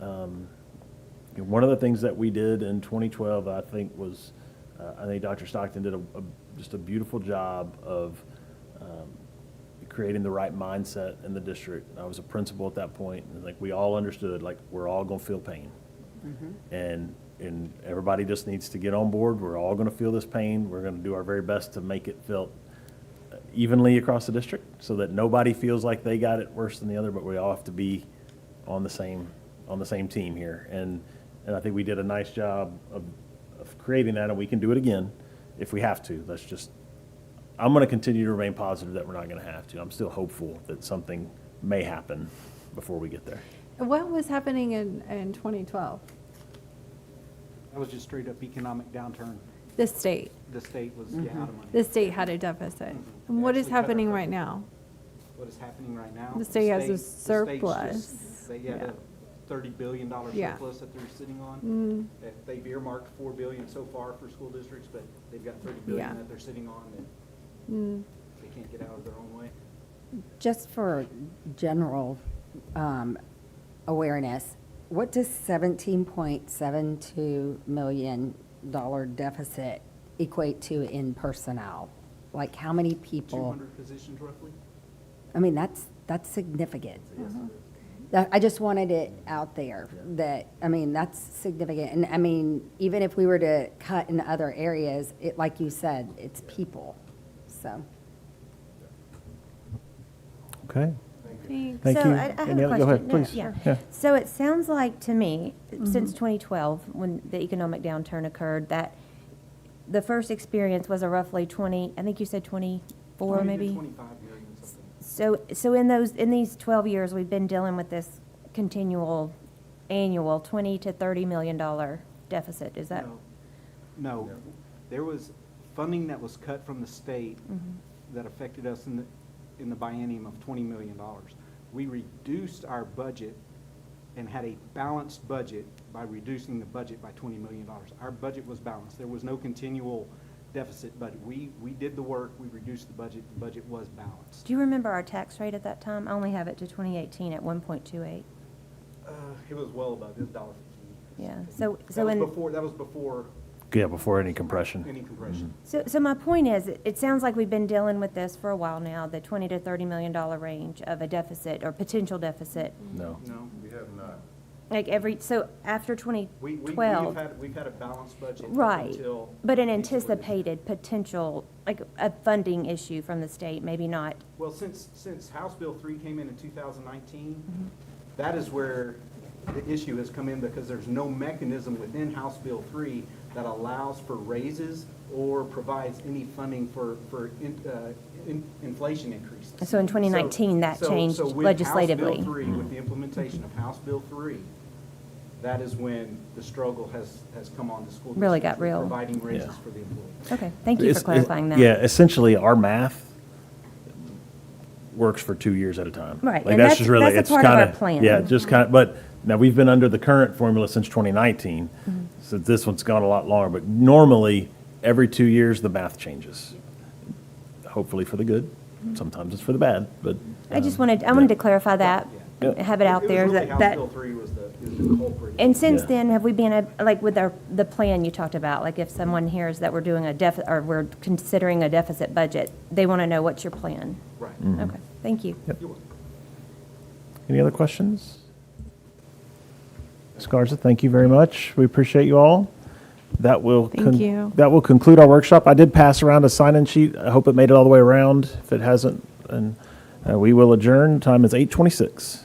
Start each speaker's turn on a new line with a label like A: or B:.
A: Um, you know, One of the things that we did in 2012, I think, was, uh, I think Dr. Stockton did a, a- just a beautiful job of um, creating the right mindset in the district. I was a principal at that point, and like, we all understood, like, we're all gonna feel pain. And, and everybody just needs to get on board, we're all gonna feel this pain, we're gonna do our very best to make it felt evenly across the district so that nobody feels like they got it worse than the other, but we all have to be on the same, on the same team here. And, and I think we did a nice job of, of creating that and we can do it again if we have to. That's just, I'm going to continue to remain positive that we're not going to have to. I'm still hopeful that something may happen before we get there.
B: What was happening in, in 2012?
C: That was just straight up economic downturn.
B: The state,
C: The state was
B: Mm-hmm.
C: yeah, out of money.
B: the state had a deficit. And what is
C: Actually cut our
B: happening right
C: budget.
B: now?
C: What is happening right now?
B: The state has a
C: the state's just-
B: surplus.
C: They had
B: Yeah.
C: a thirty billion dollar
B: Yeah.
C: surplus that they're sitting on.
B: Mm,
C: That They've earmarked four billion so far for school districts, but they've got thirty
B: Yeah.
C: billion that they're sitting on that
B: mm.
C: they can't get out of their own way.
D: Just for general um, awareness, what does $17.72 million deficit equate to in personnel? Like, how many
C: Two
D: people?
C: hundred positions roughly?
D: I mean, that's, that's significant.
C: So yes, it is.
D: That- I just wanted it out there, that, I mean, that's significant. And I mean, even if we were to cut in other areas, it, like you said, it's people, so.
A: Okay.
B: Thanks.
A: Thank
E: So
A: you.
E: I, I have
A: Any
E: a
A: other-
E: question.
A: go ahead,
E: No, no,
A: please.
E: yeah.
A: Yeah.
E: So it sounds like to me,
C: Mm-hmm.
E: since 2012, when the economic downturn occurred, that the first experience was a roughly 20, I think you said 24
C: 20 to
E: maybe?
C: Twenty-five million something.
E: So, so in those, in these 12 years, we've been dealing with this continual annual 20 to 30 million dollar deficit, is that?
C: No. No, there was funding that was cut from the state
E: Mhm.
C: that affected us in the, in the biennium of twenty million dollars. We reduced our budget and had a balanced budget by reducing the budget by twenty million dollars. Our budget was balanced. There was no continual deficit, but we, we did the work, we reduced the budget, the budget was balanced.
E: Do you remember our tax rate at that time? I only have it to 2018 at 1.28.
C: Uh, it was well above, it was dollar fifty.
E: Yeah, so-
C: That
E: so
C: was
E: in-
C: Before, that was before
A: Yeah, before any compression.
C: any compression.
E: So, so my point is, it- it sounds like we've been dealing with this for a while now, the twenty to thirty million dollar range of a deficit or potential deficit.
C: Mm-hmm.
A: No.
C: No,
F: We have not.
E: Like every, so after twenty
C: we, we, we've
E: twelve,
C: had, we've had a balanced budget up
E: right?
C: until.
E: But an
C: until this-
E: anticipated potential, like a funding issue from the state, maybe not.
C: Well, since, since House Bill three came in in two thousand nineteen,
E: Mm-hmm.
C: that is where the issue has come in because there's no mechanism within House Bill three that allows for raises or provides any funding for, for in, uh, in- inflation increases.
E: So in 2019, that
C: So- so
E: changed
C: with
E: legislatively. Mm-hmm.
C: House Bill three, with the implementation of House Bill three, that is when the struggle has, has come on the school districts.
E: Really got
C: with
E: real.
C: Providing
A: Yeah.
C: raises for the employees.
E: Okay, thank you
A: It's-
E: for
A: it-
E: clarifying that.
A: Yeah, essentially, our math works for two years at a time.
E: Right,
A: Like,
E: and that's-
A: just really-
E: that's a
A: it's
E: part of our
A: kinda-
E: plan.
A: Yeah, just kind of, but now, we've been under the current formula since 2019,
E: Mm-hmm.
A: so this one's gone a lot longer. But normally, every two years, the math changes. Hopefully for the good, sometimes it's for the bad, but.
E: Mm-hmm. I just
A: um,
E: wanted, I wanted to clarify that,
A: Yeah.
E: have it out there,
C: was really
E: that,
C: House
E: that.
C: Bill three was the, is the culprit.
E: And since
A: Yeah.
E: then, have we been, uh, like with our, the plan you talked about, like if someone hears that we're doing a deficit, or we're considering a deficit budget, they want to know what's your plan?
C: Right.
E: Okay, thank you.
C: You're welcome.
A: Any other questions? Ms. Garza, thank you very much. We appreciate you all. That will.
B: Thank
A: con-
B: you.
A: That will conclude our workshop. I did pass around a sign-in sheet. I uh, hope it made it all the way around. If it hasn't, and we will adjourn. Time is 8:26.